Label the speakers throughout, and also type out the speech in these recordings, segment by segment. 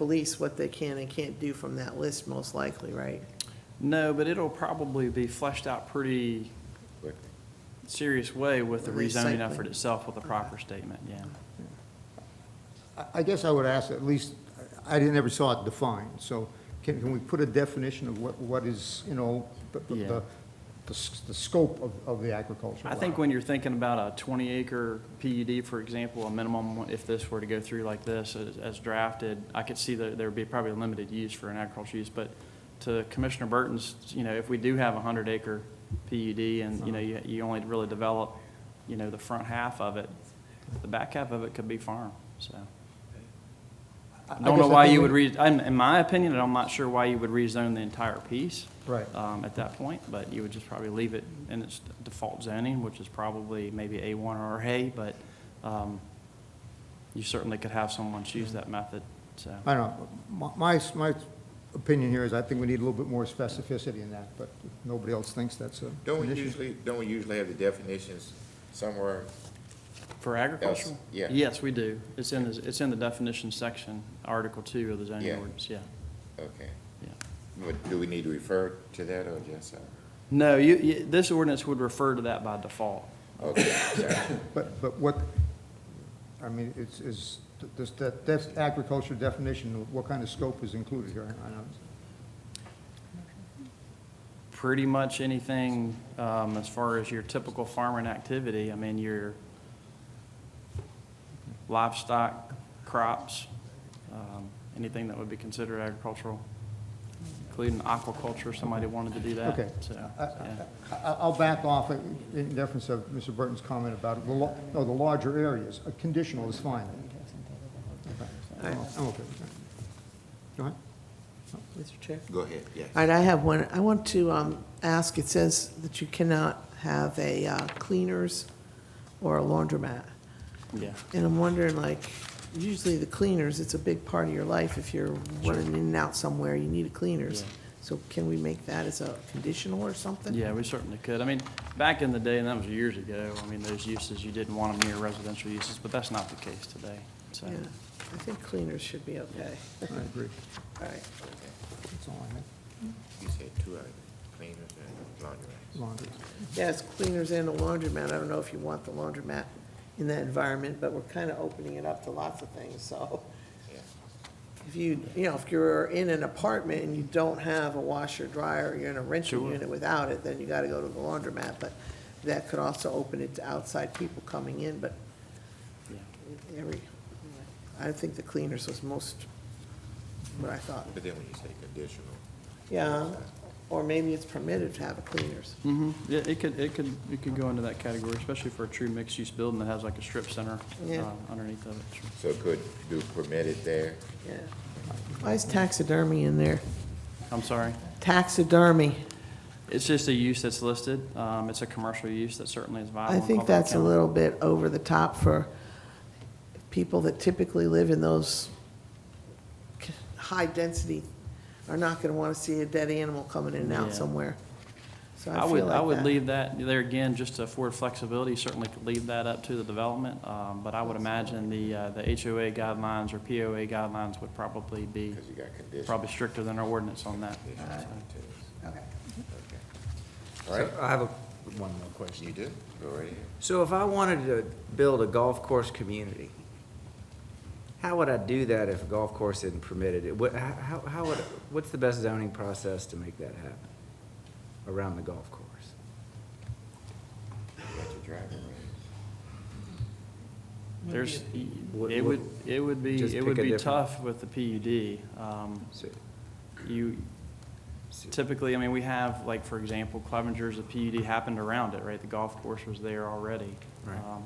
Speaker 1: police what they can and can't do from that list, most likely, right?
Speaker 2: No, but it'll probably be fleshed out pretty serious way with the
Speaker 1: With the site
Speaker 2: rezoning
Speaker 1: plan.
Speaker 2: effort itself with a proper statement, yeah.
Speaker 3: I- I guess I would ask, at least, I didn't ever saw it defined, so can, can we put a definition of what, what is, you know, the, the-
Speaker 2: Yeah.
Speaker 3: the, the s- the scope of, of the agricultural?
Speaker 2: I think
Speaker 3: lot?
Speaker 2: when you're thinking about a 20 acre PUD, for example, a minimum, if this were to go through like this as- as drafted, I could see that there would be probably limited use for an agricultural use, but to Commissioner Burton's, you know, if we do have a 100 acre PUD and, you know, you you only really develop, you know, the front half of it, the back half of it could be farm, so.
Speaker 3: I- I
Speaker 2: I don't know
Speaker 3: guess I
Speaker 2: why
Speaker 3: think
Speaker 2: you
Speaker 3: we-
Speaker 2: would re, I'm- in my opinion, and I'm not sure why you would rezone the entire piece.
Speaker 3: Right.
Speaker 2: um, At that point, but you would just probably leave it in its default zoning, which is probably maybe A1 or A, but um, you certainly could have someone choose that method, so.
Speaker 3: I don't know, my, my, my opinion here is I think we need a little bit more specificity in that, but nobody else thinks that's a.
Speaker 4: Don't we
Speaker 3: an issue.
Speaker 4: usually, don't we usually have the definitions somewhere?
Speaker 2: For agricultural?
Speaker 4: yeah.
Speaker 2: Yes, we do. It's in, the it's in the definition section, Article 2 of the zoning
Speaker 4: Yeah.
Speaker 2: ordinance, yeah,
Speaker 4: Okay.
Speaker 2: yeah.
Speaker 4: But do we need to refer to that or just, uh,
Speaker 2: No, you, you, this ordinance would refer to that by default.
Speaker 4: okay, sorry.
Speaker 3: But, but what, I mean, it's, is, does that, that's agriculture definition, what kind of scope is included here? I know it's-
Speaker 2: pretty much anything um, as far as your typical farming activity. I mean, your livestock, crops, um, anything that would be considered agricultural, including aquaculture, if somebody wanted to do that.
Speaker 3: Okay.
Speaker 2: So,
Speaker 3: I-
Speaker 2: yeah.
Speaker 3: I- I- I'll back off in in deference of Mr. Burton's comment about, the lo- no, the larger areas. A conditional is fine. Okay. I'm okay with that. Go ahead.
Speaker 1: Mr. Chair?
Speaker 4: Go ahead, yes.
Speaker 1: All right, I have one. I want to um, ask, it says that you cannot have a uh, cleaners or a laundromat.
Speaker 2: Yeah.
Speaker 1: And I'm wondering, like, usually the cleaners, it's a big part of your life. If you're running in and out somewhere, you need a cleaners.
Speaker 2: Yeah.
Speaker 1: So can we make that as a conditional or something?
Speaker 2: Yeah, we certainly could. I mean, back in the day, and that was years ago, I mean, those uses, you didn't want them near residential uses, but that's not the case today. So,
Speaker 1: Yeah, I think cleaners should be okay.
Speaker 3: I agree.
Speaker 1: All right.
Speaker 3: That's all I have.
Speaker 4: You said two items, cleaners and laundry.
Speaker 3: Laundry.
Speaker 1: Yeah, it's cleaners and a laundromat. I don't know if you want the laundromat in that environment, but we're kind of opening it up to lots of things, so.
Speaker 4: Yeah.
Speaker 1: If you, you know, if you're in an apartment and you don't have a washer, dryer, you're in a rental
Speaker 2: Sure.
Speaker 1: unit without it, then you gotta go to the laundromat, but that could also open it to outside people coming in, but
Speaker 2: yeah.
Speaker 1: every, I think the cleaners was most, what I thought.
Speaker 4: But then when you say conditional,
Speaker 1: Yeah, or maybe it's permitted to have a cleaners.
Speaker 2: hmm yeah, it could, it could, it could go into that category, especially for a true mixed-use building that has like a strip center
Speaker 1: Yeah.
Speaker 2: um, underneath of it. Sure.
Speaker 4: so could do permitted there?
Speaker 1: Yeah. Why is taxidermy in there?
Speaker 2: I'm sorry.
Speaker 1: Taxidermy.
Speaker 2: It's just a use that's listed. Um, it's a commercial use that certainly is viable.
Speaker 1: I
Speaker 2: in
Speaker 1: think
Speaker 2: Caldwell
Speaker 1: that's a
Speaker 2: County.
Speaker 1: little bit over the top for people that typically live in those c- high density are not gonna wanna see a dead animal coming in and out
Speaker 2: Yeah.
Speaker 1: somewhere. So
Speaker 2: I
Speaker 1: I
Speaker 2: would,
Speaker 1: feel
Speaker 2: I would
Speaker 1: like that.
Speaker 2: leave that, there again, just to afford flexibility, certainly could leave that up to the development. Um, but I would imagine the, uh, the HOA guidelines or POA guidelines would probably be,
Speaker 4: Because you got conditional.
Speaker 2: probably stricter than our ordinance on that.
Speaker 4: conditional
Speaker 2: So-
Speaker 4: to this.
Speaker 1: Okay.
Speaker 4: All right,
Speaker 5: I have a, one more
Speaker 4: you
Speaker 5: question.
Speaker 4: do, go right ahead.
Speaker 5: So if I wanted to build a golf course community, how would I do that if a golf course isn't permitted? It would, how- how, how would, what's the best zoning process to make that happen around the golf course?
Speaker 4: You got your driving range.
Speaker 2: There's,
Speaker 5: What-
Speaker 2: it
Speaker 5: what-
Speaker 2: would, it would
Speaker 5: Just
Speaker 2: be, it would
Speaker 5: pick a
Speaker 2: be
Speaker 5: different-
Speaker 2: tough with the PUD. Um,
Speaker 5: So-
Speaker 2: You,
Speaker 5: so-
Speaker 2: typically, I mean, we have, like, for example, Clevenger's, the PUD happened around it, right? The golf course was there already.
Speaker 5: Right.
Speaker 2: Um,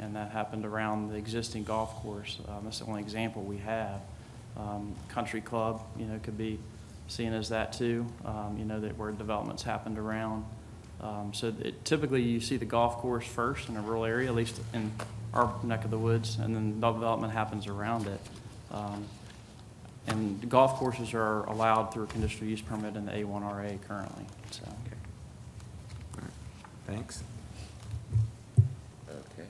Speaker 2: And that happened around the existing golf course. Um, That's the only example we have. Um, Country Club, you know, could be seen as that too, um, you know, that where developments happened around. Um, So it- typically, you see the golf course first in a rural area, at least in our neck of the woods, and then development happens around it. Um, and golf courses are allowed through a conditional use permit in the A1RA currently, so.
Speaker 5: Okay. All right. Thanks.
Speaker 4: Okay.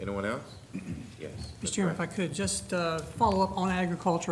Speaker 4: Anyone else? Yes.
Speaker 6: Mr. Chairman, if I could, just uh, follow up on agriculture